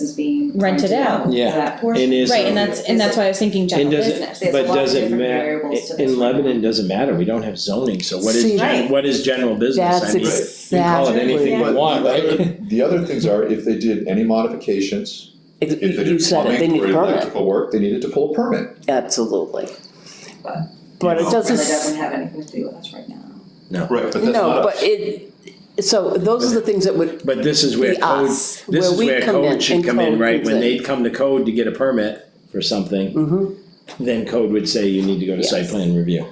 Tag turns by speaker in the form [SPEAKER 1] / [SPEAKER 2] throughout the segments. [SPEAKER 1] is being
[SPEAKER 2] Rented
[SPEAKER 1] rented
[SPEAKER 2] out.
[SPEAKER 1] out for
[SPEAKER 3] Yeah.
[SPEAKER 1] that portion.
[SPEAKER 3] And is-
[SPEAKER 2] Right, and that's, and that's why I was thinking general
[SPEAKER 3] And does it-
[SPEAKER 2] business.
[SPEAKER 1] There's a
[SPEAKER 3] But
[SPEAKER 1] lot of
[SPEAKER 3] does it
[SPEAKER 1] different
[SPEAKER 3] matter,
[SPEAKER 1] variables to this
[SPEAKER 3] in
[SPEAKER 1] right now.
[SPEAKER 3] Lebanon, doesn't matter, we don't have zoning, so what is,
[SPEAKER 4] See,
[SPEAKER 3] gen-
[SPEAKER 1] Right.
[SPEAKER 3] what is general business? I
[SPEAKER 4] That's
[SPEAKER 3] mean,
[SPEAKER 4] exactly.
[SPEAKER 3] You can call it anything you
[SPEAKER 5] But
[SPEAKER 3] want,
[SPEAKER 5] the other-
[SPEAKER 3] right?
[SPEAKER 5] The other things are, if they did any modifications,
[SPEAKER 4] Ex-
[SPEAKER 5] if they
[SPEAKER 4] You
[SPEAKER 5] did
[SPEAKER 4] said it, they
[SPEAKER 5] plumbing
[SPEAKER 4] need
[SPEAKER 5] or
[SPEAKER 4] a permit,
[SPEAKER 5] electrical work, they needed to pull a permit.
[SPEAKER 4] absolutely.
[SPEAKER 1] But-
[SPEAKER 4] But it
[SPEAKER 1] Really
[SPEAKER 4] doesn't,
[SPEAKER 1] doesn't have anything to do with us right now.
[SPEAKER 5] Right, but that's
[SPEAKER 4] no,
[SPEAKER 5] not
[SPEAKER 4] but
[SPEAKER 5] us.
[SPEAKER 4] it, so those are the things that would
[SPEAKER 3] But this is where
[SPEAKER 4] be
[SPEAKER 3] code,
[SPEAKER 4] us,
[SPEAKER 3] this
[SPEAKER 4] where
[SPEAKER 3] is
[SPEAKER 4] we
[SPEAKER 3] where
[SPEAKER 4] come in
[SPEAKER 3] code should
[SPEAKER 4] and
[SPEAKER 3] come in,
[SPEAKER 4] code
[SPEAKER 3] right, when
[SPEAKER 4] comes in.
[SPEAKER 3] they'd come to code to get a permit for something,
[SPEAKER 4] Mhm.
[SPEAKER 3] then code would say you need to go to site
[SPEAKER 4] Yes.
[SPEAKER 3] plan review.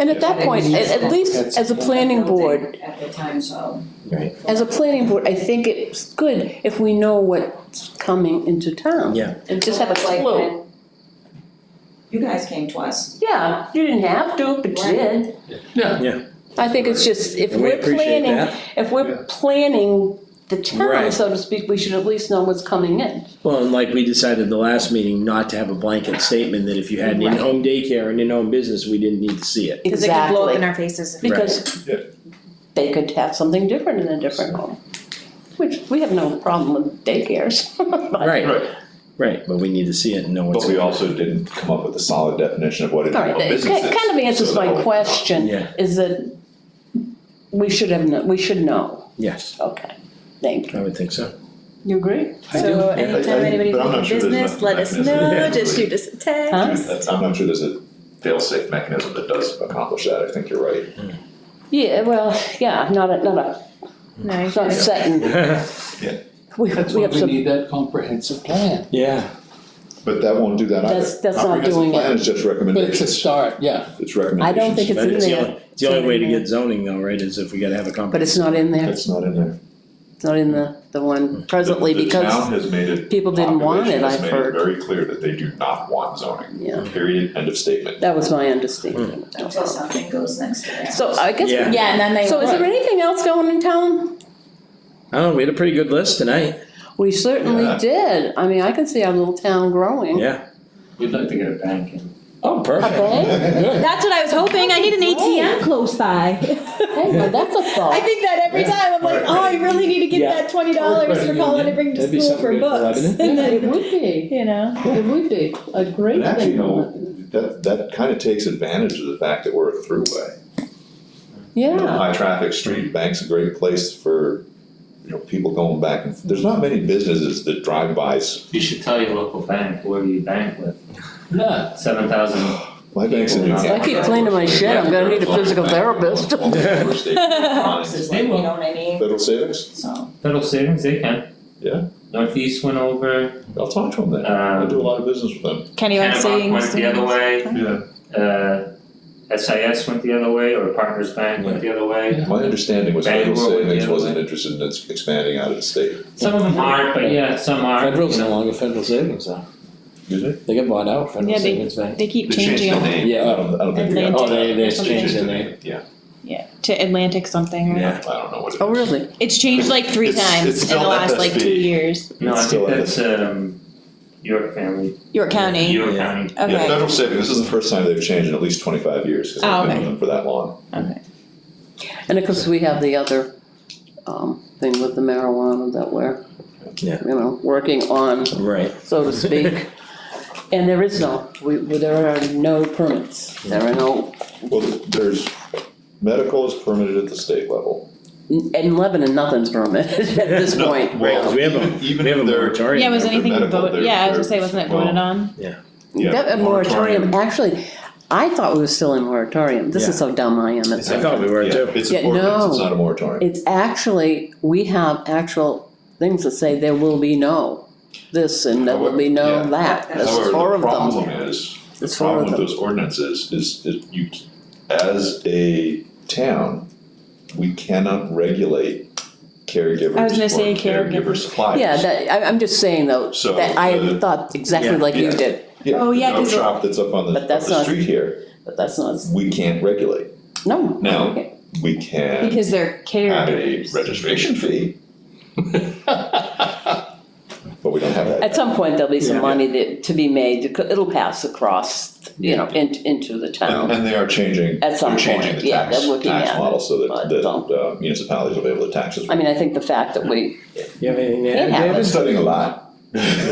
[SPEAKER 4] And at that point, at, at least as a planning board,
[SPEAKER 1] At the time, so.
[SPEAKER 3] Right.
[SPEAKER 4] As a planning board, I think it's good if we know what's coming into town.
[SPEAKER 3] Yeah.
[SPEAKER 4] And just have a
[SPEAKER 1] It's like
[SPEAKER 4] clue.
[SPEAKER 1] when You guys came to us.
[SPEAKER 4] Yeah, you didn't have to, but you did.
[SPEAKER 6] Yeah.
[SPEAKER 3] Yeah.
[SPEAKER 4] I think it's just, if
[SPEAKER 3] And we
[SPEAKER 4] we're
[SPEAKER 3] appreciate
[SPEAKER 4] planning,
[SPEAKER 3] that.
[SPEAKER 4] if we're planning the town,
[SPEAKER 3] Right.
[SPEAKER 4] so to speak, we should at least know what's coming in.
[SPEAKER 3] Well, and like we decided the last meeting, not to have a blanket statement that if you had an
[SPEAKER 4] Right.
[SPEAKER 3] in-home daycare and in-home business, we didn't need to see it.
[SPEAKER 2] Cause it could blow up in our faces. if-
[SPEAKER 4] Because
[SPEAKER 5] Yeah.
[SPEAKER 4] they could have something different in a different home, which we have no problem with daycares. but-
[SPEAKER 3] Right,
[SPEAKER 5] Right,
[SPEAKER 3] right, but we need to see it and know what's.
[SPEAKER 5] but we
[SPEAKER 3] going on.
[SPEAKER 5] also didn't come up with a solid definition of what it
[SPEAKER 4] All right,
[SPEAKER 5] what
[SPEAKER 4] it
[SPEAKER 5] business
[SPEAKER 4] ki-
[SPEAKER 5] is.
[SPEAKER 4] kind of answers
[SPEAKER 5] So that
[SPEAKER 4] my
[SPEAKER 5] would-
[SPEAKER 4] question,
[SPEAKER 3] Yeah.
[SPEAKER 4] is that we should have, kno- we should know,
[SPEAKER 3] Yes,
[SPEAKER 4] okay, thank you.
[SPEAKER 3] I would think so.
[SPEAKER 4] You agree?
[SPEAKER 3] I do,
[SPEAKER 2] So
[SPEAKER 3] yeah.
[SPEAKER 2] anytime
[SPEAKER 5] I- I-
[SPEAKER 2] anybody's
[SPEAKER 5] but I'm
[SPEAKER 2] in
[SPEAKER 5] not sure there's
[SPEAKER 2] business,
[SPEAKER 5] much
[SPEAKER 2] let us
[SPEAKER 5] mechanism.
[SPEAKER 2] know,
[SPEAKER 5] Yeah.
[SPEAKER 2] just shoot us a text.
[SPEAKER 4] Huh?
[SPEAKER 5] That's, I'm not sure there's a fail-safe mechanism that does accomplish that, I think you're right.
[SPEAKER 4] Yeah, well, yeah, not a, not a,
[SPEAKER 2] No, I
[SPEAKER 4] it's not
[SPEAKER 2] get it.
[SPEAKER 4] set in, we, we have
[SPEAKER 6] That's
[SPEAKER 4] some.
[SPEAKER 6] why we need that comprehensive plan.
[SPEAKER 3] Yeah,
[SPEAKER 5] But that won't do that either.
[SPEAKER 4] That's- that's not doing
[SPEAKER 5] Comprehensive
[SPEAKER 4] it.
[SPEAKER 5] plan is just
[SPEAKER 6] But it's a
[SPEAKER 5] recommendations,
[SPEAKER 6] start, yeah.
[SPEAKER 5] it's recommendations.
[SPEAKER 4] I don't think it's
[SPEAKER 3] but
[SPEAKER 4] in
[SPEAKER 3] it's the
[SPEAKER 4] there,
[SPEAKER 3] only, it's the only way to
[SPEAKER 2] in there.
[SPEAKER 3] get zoning though, right, is if we gotta have a
[SPEAKER 4] but
[SPEAKER 3] comprehensive.
[SPEAKER 4] it's not in there,
[SPEAKER 5] It's not in there.
[SPEAKER 4] it's not in the, the one presently
[SPEAKER 5] The- The
[SPEAKER 4] because,
[SPEAKER 5] town has made it.
[SPEAKER 4] people didn't want it,
[SPEAKER 5] population has
[SPEAKER 4] I've
[SPEAKER 5] made
[SPEAKER 4] heard.
[SPEAKER 5] very clear that they do not want zoning.
[SPEAKER 4] Yeah.
[SPEAKER 5] Period, end of statement.
[SPEAKER 4] that was my understanding.
[SPEAKER 1] Until something goes next to that.
[SPEAKER 4] So uh, I guess,
[SPEAKER 3] Yeah.
[SPEAKER 2] Yeah, and then they.
[SPEAKER 4] so is there anything else going in town?
[SPEAKER 3] Oh, we had a pretty good list tonight,
[SPEAKER 4] We certainly
[SPEAKER 5] Yeah.
[SPEAKER 4] did, I mean, I can see our little town growing.
[SPEAKER 3] yeah.
[SPEAKER 6] You'd like to get a bank in.
[SPEAKER 3] Oh, perfect.
[SPEAKER 6] Good.
[SPEAKER 2] That's what I was hoping, I need an ATM close by.
[SPEAKER 4] Hey, well, that's a
[SPEAKER 2] I
[SPEAKER 4] thought.
[SPEAKER 2] think that every
[SPEAKER 3] Yeah.
[SPEAKER 2] time, I'm like, oh, I really need to get
[SPEAKER 3] Yeah.
[SPEAKER 2] that twenty dollars for
[SPEAKER 3] Right.
[SPEAKER 2] Colin to bring to
[SPEAKER 3] That'd be
[SPEAKER 2] school for
[SPEAKER 3] something good for
[SPEAKER 2] books,
[SPEAKER 3] Lebanon.
[SPEAKER 2] and
[SPEAKER 4] Yeah,
[SPEAKER 2] then,
[SPEAKER 4] It would be,
[SPEAKER 2] you know,
[SPEAKER 4] it would be a great
[SPEAKER 5] And actually,
[SPEAKER 4] thing.
[SPEAKER 5] you know, that, that kind of takes advantage of the fact that we're a throughway. You know,
[SPEAKER 4] Yeah,
[SPEAKER 5] High traffic street, bank's a great place for, you know, people going back and, there's not many businesses that drive bys.
[SPEAKER 7] You should tell your local bank, whoever you bank with,
[SPEAKER 6] Yeah,
[SPEAKER 7] seven thousand
[SPEAKER 5] My bank's in New
[SPEAKER 7] I
[SPEAKER 4] keep cleaning my shit, I'm gonna need a physical therapist.
[SPEAKER 1] This is like, you know what I mean?
[SPEAKER 5] Federal savings,
[SPEAKER 1] So,
[SPEAKER 7] federal savings, they can.
[SPEAKER 5] Yeah.
[SPEAKER 7] Northeast went over,
[SPEAKER 5] I'll talk to them then, I do a lot of business with them.
[SPEAKER 2] Kenny on
[SPEAKER 7] Kennebunk
[SPEAKER 2] savings.
[SPEAKER 7] went the other way,
[SPEAKER 5] Yeah.
[SPEAKER 7] uh, SIS went the other way, or Partners Bank went the other way.
[SPEAKER 4] Um,
[SPEAKER 5] My understanding was federal
[SPEAKER 7] Bangor would be
[SPEAKER 5] savings
[SPEAKER 7] the other
[SPEAKER 5] wasn't interested in ex- expanding out of the state.
[SPEAKER 7] Some of them aren't, but yeah, some are.
[SPEAKER 3] Federal's
[SPEAKER 7] you
[SPEAKER 3] no
[SPEAKER 7] know.
[SPEAKER 3] longer federal savings though,
[SPEAKER 5] Did they?
[SPEAKER 3] they got bought out,
[SPEAKER 2] Yeah,
[SPEAKER 3] federal
[SPEAKER 2] they-
[SPEAKER 3] savings bank.
[SPEAKER 2] They keep
[SPEAKER 5] changed their name.
[SPEAKER 3] Yeah.
[SPEAKER 5] I don't, I don't think they got.
[SPEAKER 2] Atlantic
[SPEAKER 3] Oh, they, they
[SPEAKER 2] something.
[SPEAKER 3] changed their name.
[SPEAKER 5] Yeah,
[SPEAKER 2] yeah, to Atlantic something.
[SPEAKER 5] I don't know what it is.
[SPEAKER 4] oh, really?
[SPEAKER 2] It's changed like three
[SPEAKER 5] It's-
[SPEAKER 2] times
[SPEAKER 5] it's
[SPEAKER 2] in the
[SPEAKER 5] spelled
[SPEAKER 2] last like
[SPEAKER 5] FSB.
[SPEAKER 2] two years.
[SPEAKER 7] No, I
[SPEAKER 5] It's still
[SPEAKER 7] think
[SPEAKER 5] in
[SPEAKER 7] that's, um, York family,
[SPEAKER 2] York County.
[SPEAKER 7] York
[SPEAKER 3] Yeah.
[SPEAKER 7] County.
[SPEAKER 2] Okay.
[SPEAKER 5] Yeah, federal savings, this is the first time they've changed in at least twenty-five years, because
[SPEAKER 2] Oh,
[SPEAKER 5] I've been
[SPEAKER 2] okay.
[SPEAKER 5] with them for that long.
[SPEAKER 4] And of course, we have the other, um, thing with the marijuana that we're,
[SPEAKER 3] Yeah.
[SPEAKER 4] you know, working on,
[SPEAKER 3] Right.
[SPEAKER 4] so to speak. And there is no, we, there are no permits, there are no,
[SPEAKER 5] Well, there's, medical is permitted at the state level.
[SPEAKER 4] in Lebanon, nothing's permitted at this
[SPEAKER 5] No,
[SPEAKER 4] point.
[SPEAKER 3] Right, 'cause we have a-
[SPEAKER 5] even- even
[SPEAKER 3] We have a
[SPEAKER 5] if they're-
[SPEAKER 3] moratorium.
[SPEAKER 2] Yeah, was
[SPEAKER 5] They're
[SPEAKER 2] anything
[SPEAKER 5] medical,
[SPEAKER 2] voted,
[SPEAKER 5] they're-
[SPEAKER 2] yeah, I was gonna say,
[SPEAKER 5] they're-
[SPEAKER 2] wasn't it
[SPEAKER 5] well-
[SPEAKER 2] voted on?
[SPEAKER 5] Yeah,
[SPEAKER 4] That- a moratorium, actually, I thought we were still in moratorium, this is how dumb I am at
[SPEAKER 3] I thought we were
[SPEAKER 5] Yeah,
[SPEAKER 3] too.
[SPEAKER 5] it's
[SPEAKER 4] Yeah,
[SPEAKER 5] an ordinance, it's
[SPEAKER 4] no.
[SPEAKER 5] not a moratorium.
[SPEAKER 4] It's actually, we have actual things that say there will be no this and there will be no
[SPEAKER 5] However,
[SPEAKER 4] that. There's
[SPEAKER 5] However,
[SPEAKER 4] four of
[SPEAKER 5] the
[SPEAKER 4] them.
[SPEAKER 5] problem is, the
[SPEAKER 4] There's four
[SPEAKER 5] problem
[SPEAKER 4] of
[SPEAKER 5] with
[SPEAKER 4] them.
[SPEAKER 5] those ordinances is, is you, as a town, we cannot regulate caregivers
[SPEAKER 2] I was gonna say
[SPEAKER 5] or caregiver
[SPEAKER 2] caregivers.
[SPEAKER 5] suppliers.
[SPEAKER 4] Yeah, that, I, I'm just saying though,
[SPEAKER 5] So,
[SPEAKER 4] that I
[SPEAKER 5] uh,
[SPEAKER 4] thought exactly
[SPEAKER 3] Yeah.
[SPEAKER 4] like you
[SPEAKER 5] Yeah.
[SPEAKER 4] did,
[SPEAKER 5] Yeah,
[SPEAKER 2] Oh,
[SPEAKER 5] the
[SPEAKER 2] yeah,
[SPEAKER 5] dog
[SPEAKER 2] 'cause the-
[SPEAKER 5] shop that's up on the,
[SPEAKER 4] But
[SPEAKER 5] up
[SPEAKER 4] that's
[SPEAKER 5] the
[SPEAKER 4] not-
[SPEAKER 5] street here,
[SPEAKER 4] but that's not,
[SPEAKER 5] we can't regulate.
[SPEAKER 4] no.
[SPEAKER 5] No.
[SPEAKER 4] Okay.
[SPEAKER 5] We can
[SPEAKER 2] Because they're
[SPEAKER 5] have a
[SPEAKER 2] caregivers.
[SPEAKER 5] registration fee. But we don't have that.
[SPEAKER 4] At some point, there'll be some
[SPEAKER 3] Yeah.
[SPEAKER 4] money that, to be made, it'll pass across, you know, in, into the
[SPEAKER 5] And,
[SPEAKER 4] town.
[SPEAKER 5] and they are changing,
[SPEAKER 4] At some
[SPEAKER 5] they're changing
[SPEAKER 4] point,
[SPEAKER 5] the
[SPEAKER 4] yeah,
[SPEAKER 5] tax,
[SPEAKER 4] they're looking
[SPEAKER 5] tax
[SPEAKER 4] at it,
[SPEAKER 5] model so that,
[SPEAKER 4] but
[SPEAKER 5] that
[SPEAKER 4] don't.
[SPEAKER 5] uh, municipalities will be able to tax us.
[SPEAKER 4] I mean, I think the fact that we,
[SPEAKER 3] You have anything to add,
[SPEAKER 4] It
[SPEAKER 3] David?
[SPEAKER 5] I've been studying a lot.